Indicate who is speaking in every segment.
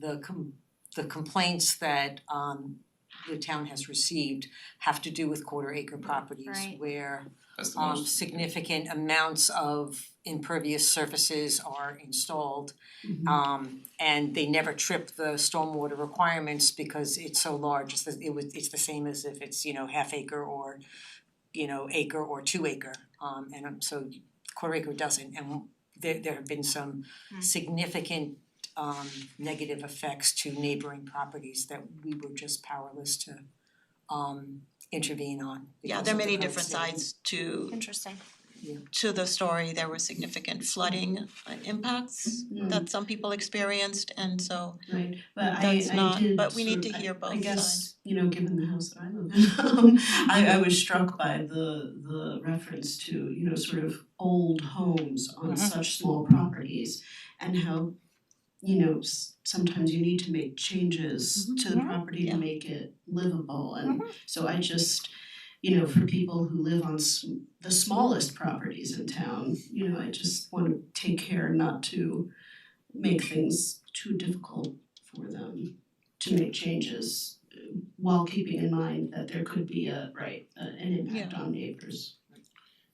Speaker 1: the com- the complaints that um the town has received have to do with quarter acre properties
Speaker 2: Right.
Speaker 1: where
Speaker 3: That's the
Speaker 1: um
Speaker 3: most.
Speaker 1: significant amounts of impervious surfaces are installed.
Speaker 4: Mm-hmm.
Speaker 1: Um and they never trip the stormwater requirements because it's so large, it's the, it was, it's the same as if it's, you know, half acre or you know, acre or two acre, um and um, so quarter acre doesn't, and there there have been some
Speaker 2: Hmm.
Speaker 1: significant um negative effects to neighboring properties that we were just powerless to um intervene on
Speaker 4: Yeah,
Speaker 1: because
Speaker 4: there are
Speaker 1: of the
Speaker 4: many
Speaker 1: current
Speaker 4: different
Speaker 1: state.
Speaker 4: sides to
Speaker 2: Interesting.
Speaker 4: to the story. There were significant flooding uh, impacts
Speaker 5: Mm.
Speaker 4: that some people experienced and so
Speaker 5: Right, but I
Speaker 4: That's
Speaker 5: I
Speaker 4: not-
Speaker 5: did
Speaker 4: but we need
Speaker 5: sort of-
Speaker 4: to
Speaker 5: I-
Speaker 4: hear both
Speaker 5: I guess,
Speaker 4: sides.
Speaker 5: you know, given the house that I live in, um, I I was struck by the the reference to, you know, sort of old homes on
Speaker 1: Mhm.
Speaker 4: Mm-hmm.
Speaker 5: such small properties and how, you know, s- sometimes you need to make changes to the
Speaker 1: Yeah.
Speaker 4: Mm-hmm.
Speaker 5: property
Speaker 4: Yeah. Mm-hmm.
Speaker 5: to make it livable and so I just, you know, for people who live on s- the smallest properties in town, you know, I just want to take care not to make things too difficult for them to make changes uh, while keeping in mind that there could be a, right, a- an impact on neighbors.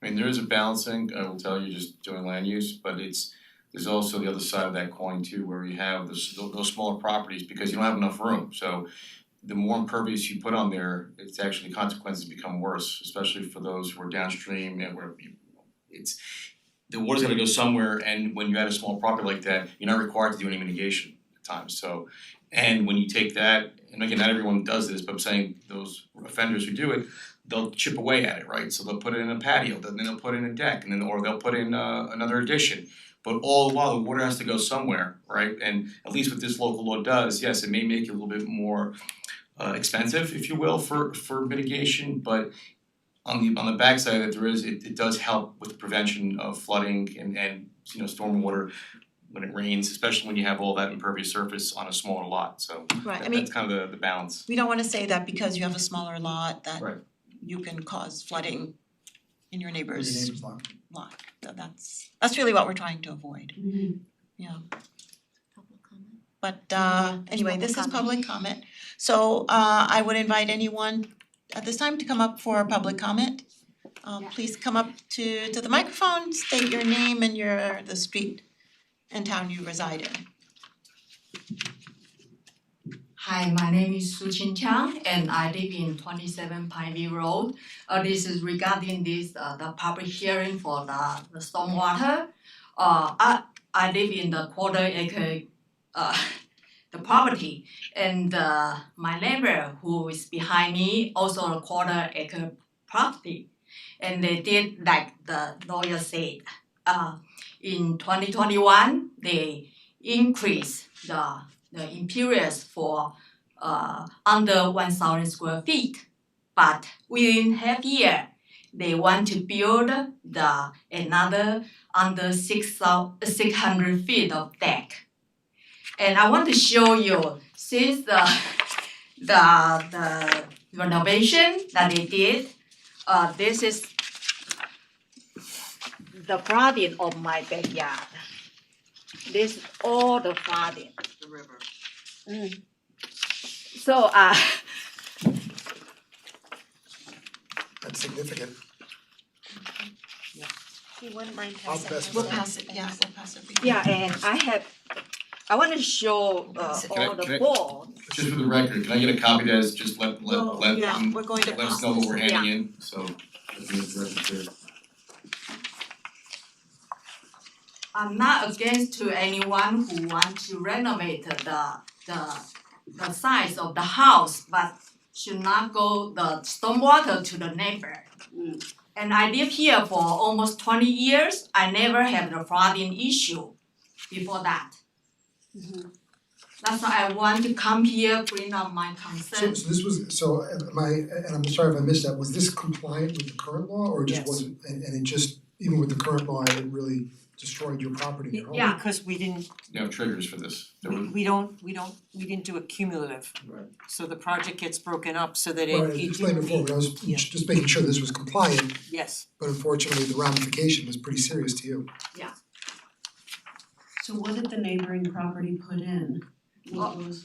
Speaker 3: I mean, there is a balancing, I will tell you, just doing land use, but it's, there's also the other side of that coin too, where you have those those smaller properties because you don't have enough room, so the more impervious you put on there, it's actually consequences become worse, especially for those who are downstream and where you- it's the water's gonna go somewhere and when you add a small property like that, you're not required to do any mitigation at times, so and when you take that, and again, not everyone does this, but I'm saying those offenders who do it, they'll chip away at it, right? So they'll put it in a patio, then they'll put in a deck, and then or they'll put in uh, another addition. But all the while, the water has to go somewhere, right? And at least what this local law does, yes, it may make it a little bit more uh, expensive, if you will, for for mitigation, but on the on the backside of it, there is it, it does help with the prevention of flooding and and you know stormwater when it rains, especially when you have all that impervious surface on a smaller lot. So
Speaker 4: right, I
Speaker 3: that-
Speaker 4: mean,
Speaker 3: that's kind of the the balance.
Speaker 4: we don't wanna say that because you have a smaller lot that
Speaker 3: Right.
Speaker 4: you can cause flooding in your
Speaker 6: Your
Speaker 4: neighbor's
Speaker 6: neighbor's lot.
Speaker 4: lot. So that's that's really what we're trying to avoid,
Speaker 5: Mm-hmm.
Speaker 4: yeah. But uh anyway,
Speaker 2: public
Speaker 4: this is
Speaker 2: comment.
Speaker 4: public comment. So uh I would invite anyone at this time to come up for a public comment. Um
Speaker 2: Yeah.
Speaker 4: please come up to to the microphone, state your name and your the street and town you reside in.
Speaker 7: Hi, my name is Su Chin Chang and I live in twenty-seven Pineview Road. Uh, this is regarding this, uh, the public hearing for the, the stormwater. Uh, I, I live in the quarter acre, uh, the property and, uh, my neighbor who is behind me also a quarter acre property. And they did like the lawyer said, uh, in twenty twenty-one, they increased the the imperials for uh under one thousand square feet. But within half year, they want to build the another under six thou- six hundred feet of deck. And I want to show you since the the the renovation that they did, uh this is the flooding of my backyard. This is all the flooding. The river. So uh
Speaker 6: That's significant.
Speaker 1: Uh,
Speaker 2: You wouldn't mind
Speaker 6: I'll
Speaker 2: passing
Speaker 6: pass
Speaker 2: this
Speaker 4: We'll
Speaker 6: Yeah.
Speaker 2: down.
Speaker 4: pass it, yeah, we'll pass it.
Speaker 7: yeah, and I have I want to show uh,
Speaker 4: Can
Speaker 3: I-
Speaker 7: all the
Speaker 3: can I-
Speaker 7: boards.
Speaker 3: Just for the record, can I get a copy that is just let let
Speaker 4: Oh,
Speaker 3: let
Speaker 4: yeah,
Speaker 3: um,
Speaker 4: we're going to
Speaker 3: let us
Speaker 4: pass
Speaker 3: know what we're
Speaker 4: this.
Speaker 3: handing in, so let me address it here.
Speaker 7: I'm not against to anyone who want to renovate the the the size of the house, but should not go the stormwater to the neighbor.
Speaker 5: Mm.
Speaker 7: And I live here for almost twenty years, I never had the flooding issue before that. Mm-hmm.
Speaker 5: Mhm.
Speaker 7: That's why I want to come here, bring up my
Speaker 6: So
Speaker 7: concern.
Speaker 6: so this was, so am I, and I'm sorry if I missed that, was this compliant with the current law or it just
Speaker 1: Yes.
Speaker 6: wasn't? And and it just, even with the current law, it really destroyed your property, your home.
Speaker 7: Yeah.
Speaker 1: Because we didn't,
Speaker 3: You have triggers for this. There
Speaker 1: we
Speaker 3: were-
Speaker 1: we don't, we don't, we didn't do a cumulative.
Speaker 6: Right.
Speaker 1: So the project gets broken up so that it
Speaker 6: Right, I
Speaker 1: it-
Speaker 6: explained before, but I was
Speaker 1: Yeah.
Speaker 6: just making sure this was compliant,
Speaker 1: Yes,
Speaker 6: but unfortunately, the ramification was pretty serious to you.
Speaker 5: So what did the neighboring property put in? What was-